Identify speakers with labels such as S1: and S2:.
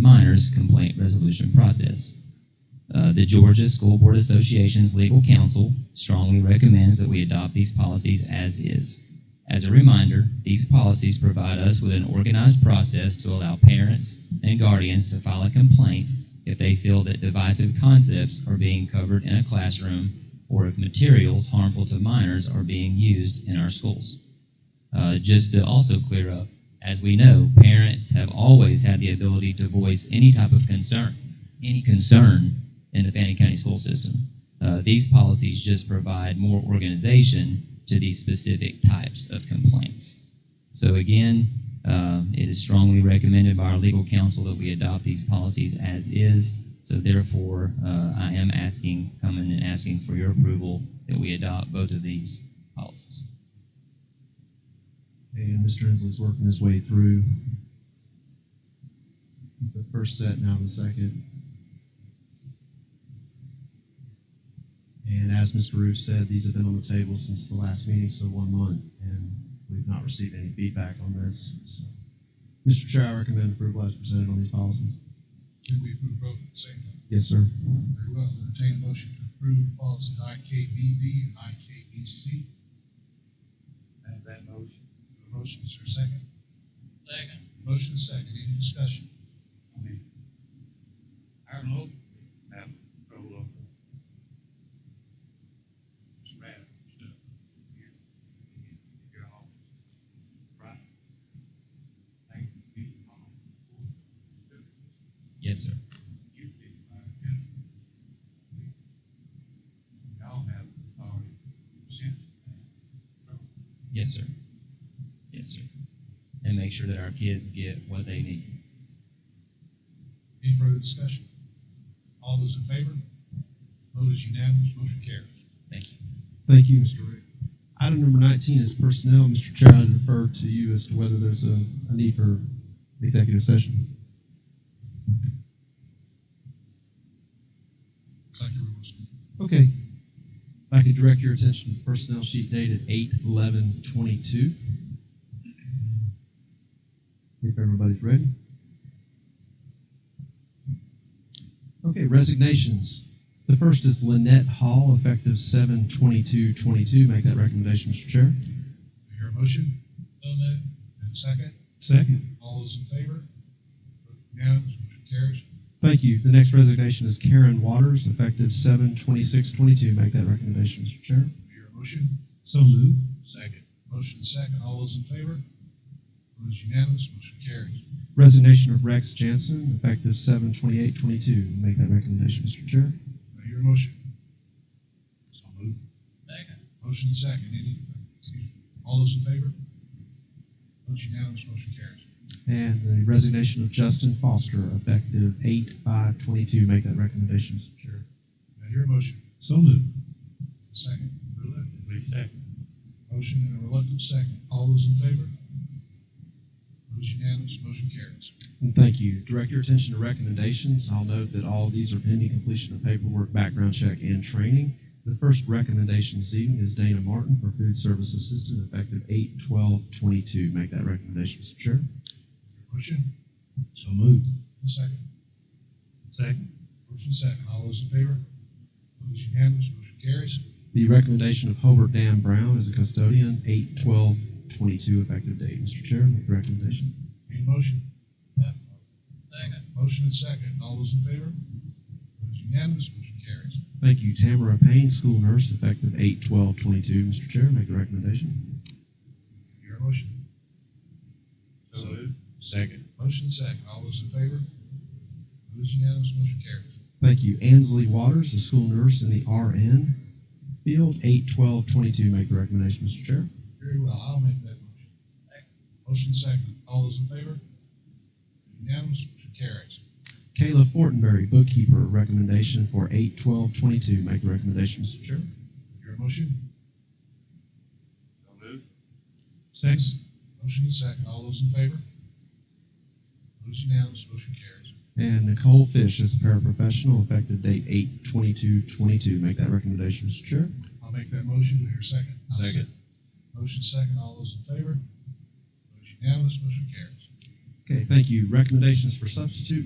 S1: matters complaint resolution process. Uh, the Georgia School Board Association's legal counsel strongly recommends that we adopt these policies as is. As a reminder, these policies provide us with an organized process to allow parents and guardians to file a complaint if they feel that divisive concepts are being covered in a classroom or if materials harmful to minors are being used in our schools. Uh, just to also clear up, as we know, parents have always had the ability to voice any type of concern, any concern in the Fannin County school system. Uh, these policies just provide more organization to these specific types of complaints. So again, uh, it is strongly recommended by our legal counsel that we adopt these policies as is. So therefore, uh, I am asking, coming and asking for your approval that we adopt both of these policies.
S2: And Mr. Inslee's working his way through the first set, now the second. And as Mr. Roof said, these have been on the table since the last meeting, so one month, and we've not received any feedback on this. So, Mr. Chair, I recommend approval as presented on these policies.
S3: Did we approve both at the same time?
S2: Yes, sir.
S3: Very well, entertain a motion to approve policy IKBB and IKBC. Have that motion. A motion, is there a second? Second. Motion is second, any discussion? I don't know.
S1: Yes, sir.
S3: Y'all have authority.
S1: Yes, sir. Yes, sir. And make sure that our kids get what they need.
S3: Any further discussion? All those in favor? Vote is unanimous, motion carries.
S1: Thank you.
S2: Thank you, Mr. Rick. Item number nineteen is personnel. Mr. Chair, I defer to you as to whether there's a, a need for executive session.
S3: Looks like everyone's.
S2: Okay. If I could direct your attention to the personnel sheet dated eight eleven twenty-two. If everybody's ready. Okay, resignations. The first is Lynette Hall, effective seven twenty-two twenty-two. Make that recommendation, Mr. Chair.
S3: Do you hear a motion? No move. And second,
S2: Second.
S3: all those in favor? Vote Unanimous, motion carries.
S2: Thank you. The next resignation is Karen Waters, effective seven twenty-six twenty-two. Make that recommendation, Mr. Chair.
S3: Do you hear a motion?
S2: So moved.
S3: Second. Motion second, all those in favor? Vote is unanimous, motion carries.
S2: Resignation of Rex Jansen, effective seven twenty-eight twenty-two. Make that recommendation, Mr. Chair.
S3: Do you hear a motion? So moved. Second. Motion second, any, excuse me, all those in favor? Vote unanimous, motion carries.
S2: And the resignation of Justin Foster, effective eight five twenty-two. Make that recommendation, Mr. Chair.
S3: Do you hear a motion?
S2: So moved.
S3: Second. Second. Motion and a reluctant second. All those in favor? Vote is unanimous, motion carries.
S2: And thank you. Direct your attention to recommendations. I'll note that all of these are pending completion of paperwork, background check, and training. The first recommendation this evening is Dana Martin for food service assistant, effective eight twelve twenty-two. Make that recommendation, Mr. Chair.
S3: Motion,
S2: So moved.
S3: a second.
S2: Second.
S3: Motion second. All those in favor? Vote is unanimous, motion carries.
S2: The recommendation of Hobart Dan Brown as a custodian, eight twelve twenty-two effective date. Mr. Chair, make the recommendation.
S3: Need a motion? Second. Motion and second. All those in favor? Vote is unanimous, motion carries.
S2: Thank you, Tamara Payne, school nurse, effective eight twelve twenty-two. Mr. Chair, make the recommendation.
S3: Your motion? So Second. Motion second. All those in favor? Vote is unanimous, motion carries.
S2: Thank you, Ansley Waters, a school nurse in the RN field, eight twelve twenty-two. Make the recommendation, Mr. Chair.
S3: Very well, I'll make that motion. Motion second, all those in favor? Unanimous, motion carries.
S2: Kayla Fortenberry, bookkeeper, recommendation for eight twelve twenty-two. Make the recommendation, Mr. Chair.
S3: Your motion? So moved. Six. Motion is second, all those in favor? Motion unanimous, motion carries.
S2: And Nicole Fish is a paraprofessional, effective date eight twenty-two twenty-two. Make that recommendation, Mr. Chair.
S3: I'll make that motion, do I hear a second? I'll
S2: Second.
S3: Motion second, all those in favor? Motion unanimous, motion carries.
S2: Okay, thank you. Recommendations for substitute